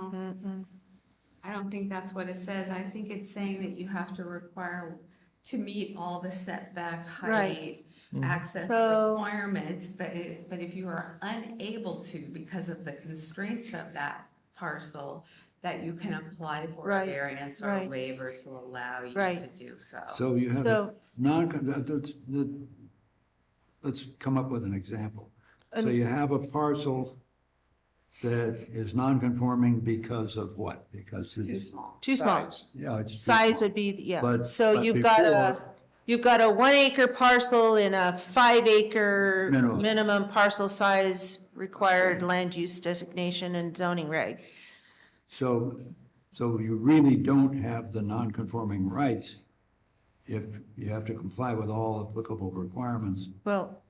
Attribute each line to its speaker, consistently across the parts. Speaker 1: Mm-hmm.
Speaker 2: don't think that's what it says. I think it's saying that you have to require to meet all the setback
Speaker 1: Right.
Speaker 2: height,
Speaker 3: Mm-hmm.
Speaker 2: access
Speaker 1: So-
Speaker 2: requirements, but it, but if you are unable to because of the constraints of that parcel, that you can apply for a
Speaker 1: Right,
Speaker 2: variance or a
Speaker 1: right.
Speaker 2: waiver to allow you to
Speaker 1: Right.
Speaker 2: do so.
Speaker 3: So you have, a
Speaker 1: So-
Speaker 3: non, that- that's, that, let's come up with an example. So
Speaker 1: An-
Speaker 3: you have a parcel that is non-conforming because of what? Because
Speaker 2: Too
Speaker 3: it's,
Speaker 2: small.
Speaker 1: Too small.
Speaker 3: Size. yeah, it's. too
Speaker 1: Size
Speaker 3: small.
Speaker 1: would be, yeah.
Speaker 3: But-
Speaker 1: So
Speaker 3: but
Speaker 1: you've got a,
Speaker 3: before-
Speaker 1: you've got a one acre parcel and a five acre
Speaker 3: Minimum.
Speaker 1: minimum parcel size required land use designation and zoning reg.
Speaker 3: So, so you really don't have the non-conforming rights if you have to comply with all applicable requirements.
Speaker 1: Well,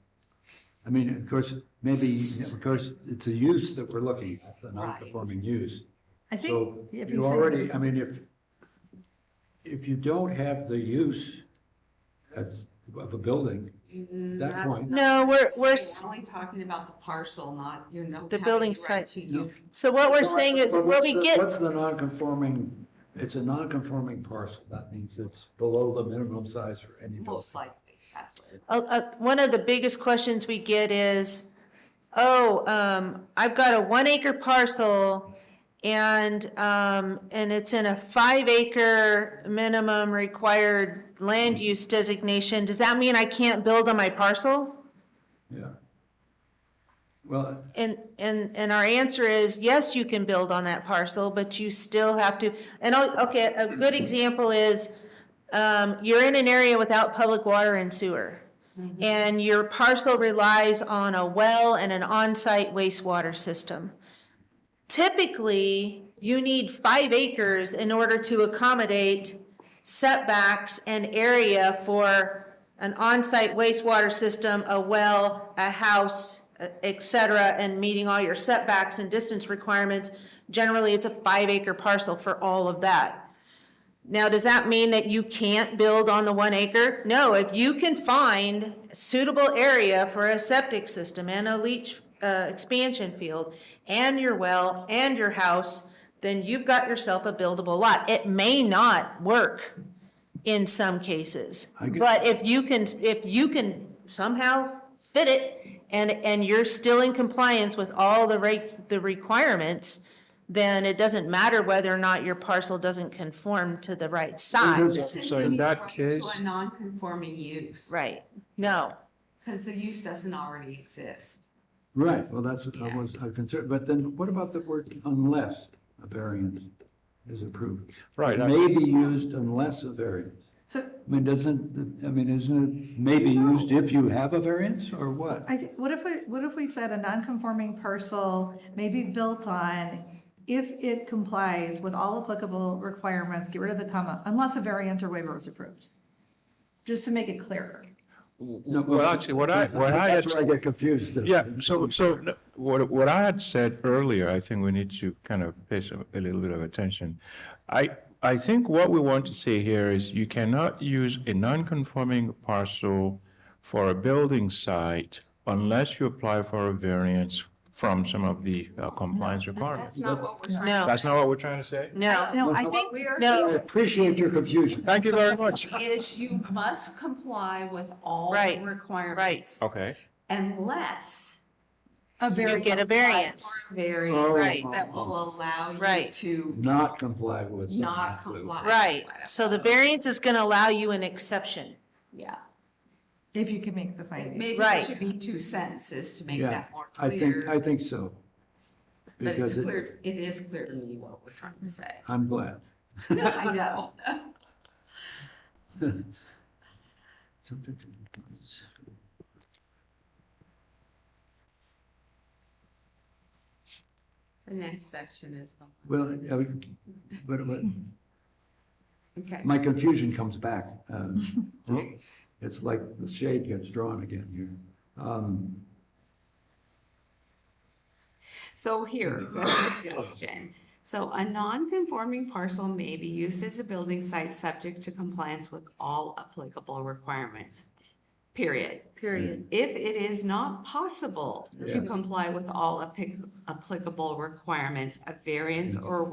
Speaker 3: I mean, of course, maybe, of course, it's a use that we're looking at, the non-conforming use.
Speaker 2: I
Speaker 3: So
Speaker 2: think. if
Speaker 3: you
Speaker 2: said-
Speaker 3: already, I mean, if, if you don't have the use as, of a building, that
Speaker 2: that's
Speaker 3: point,
Speaker 1: no, we're, we're, s-
Speaker 2: We're only talking about the parcel, not, you know.
Speaker 1: The building site.
Speaker 2: To
Speaker 3: No.
Speaker 2: use
Speaker 1: so what we're saying is
Speaker 3: Well,
Speaker 1: where
Speaker 3: what's
Speaker 1: we
Speaker 3: the-
Speaker 1: get,
Speaker 3: What's the non-conforming, it's a non-conforming parcel, that means it's below the minimum size for any building.
Speaker 2: most likely, that's what. it-
Speaker 1: uh, uh, one of the biggest questions we get is, oh, um, I've got a one acre parcel and, um, and it's in a five acre minimum required land use designation. Does that mean I can't build on my parcel?
Speaker 3: Yeah. Well,
Speaker 1: And, and, and our answer is, yes, you can build on that parcel, but you still have to, and, I'll- okay, a good example is, um, you're in an area without public water and sewer. And your parcel relies on a well and an on-site wastewater system. Typically, you need five acres in order to accommodate setbacks and area for an on-site wastewater system, a well, a house, et cetera, and meeting all your setbacks and distance requirements. Generally, it's a five acre parcel for all of that. Now, does that mean that you can't build on the one acre? No, if you can find suitable area for a septic system and a leach uh, expansion field and your well and your house, then you've got yourself a buildable lot. It may not work in some cases.
Speaker 3: I get-
Speaker 1: But if you can, if you can somehow fit it and, and you're still in compliance with all the reg, the requirements, then it doesn't matter whether or not your parcel doesn't conform to the right size.
Speaker 2: Simply
Speaker 4: So in that
Speaker 2: refer to
Speaker 4: case-
Speaker 2: A non-conforming use.
Speaker 1: Right, no,
Speaker 2: Because the use doesn't already exist.
Speaker 3: right, well, that's what I was concerned, but then what about the word unless a variance is approved?
Speaker 4: Right, I
Speaker 3: May be used unless a variance.
Speaker 2: So
Speaker 3: I mean, doesn't, I mean, isn't it maybe used if you have a variance or what?
Speaker 5: I think, what if, we what if we said a non-conforming parcel may be built on if it complies with all applicable requirements, get rid of the comma, unless a variance or waiver is approved? Just to make it clearer.
Speaker 3: No,
Speaker 4: Well, actually, what I, what I had,
Speaker 3: That's where I get confused.
Speaker 4: yeah, so, so no, what, what I had said earlier, I think we need to kind of pay some, a little bit of attention. I, I think what we want to say here is you cannot use a non-conforming parcel for a building site unless you apply for a variance from some of the uh, compliance
Speaker 2: that's
Speaker 4: requirements.
Speaker 2: not what we're trying.
Speaker 1: no,
Speaker 4: That's not what we're trying to say?
Speaker 1: no,
Speaker 5: No, I think,
Speaker 2: We are
Speaker 1: No.
Speaker 3: I appreciate your confusion.
Speaker 4: Thank you very much.
Speaker 2: is you must comply with all the
Speaker 1: Right,
Speaker 2: requirements
Speaker 4: Okay.
Speaker 2: unless
Speaker 5: a
Speaker 1: you
Speaker 5: variance,
Speaker 1: get a variance,
Speaker 3: Oh.
Speaker 2: variance
Speaker 1: Right.
Speaker 2: that will allow you
Speaker 1: Right.
Speaker 2: to
Speaker 3: Not comply with. something.
Speaker 2: not comply.
Speaker 1: right. So the variance is gonna allow you an exception,
Speaker 2: Yeah,
Speaker 5: if you can make the finding.
Speaker 2: maybe it
Speaker 1: Right.
Speaker 2: should be two sentences to make
Speaker 3: Yeah,
Speaker 2: that more
Speaker 3: I think, I
Speaker 2: clear.
Speaker 3: think so.
Speaker 2: But it's
Speaker 3: Because it-
Speaker 2: clear, it is clear to me what we're trying to say.
Speaker 3: I'm glad.
Speaker 2: I know. The next section is the,
Speaker 3: Well, I was- but, but
Speaker 2: okay.
Speaker 3: my confusion comes back. um, It's like the shade gets drawn again here. Um,
Speaker 2: So here's a suggestion. So a non-conforming parcel may be used as a building site subject to compliance with all applicable requirements. Period.
Speaker 1: period.
Speaker 2: If it is not possible to
Speaker 3: Yeah.
Speaker 2: comply with all applic- applicable requirements, a variance or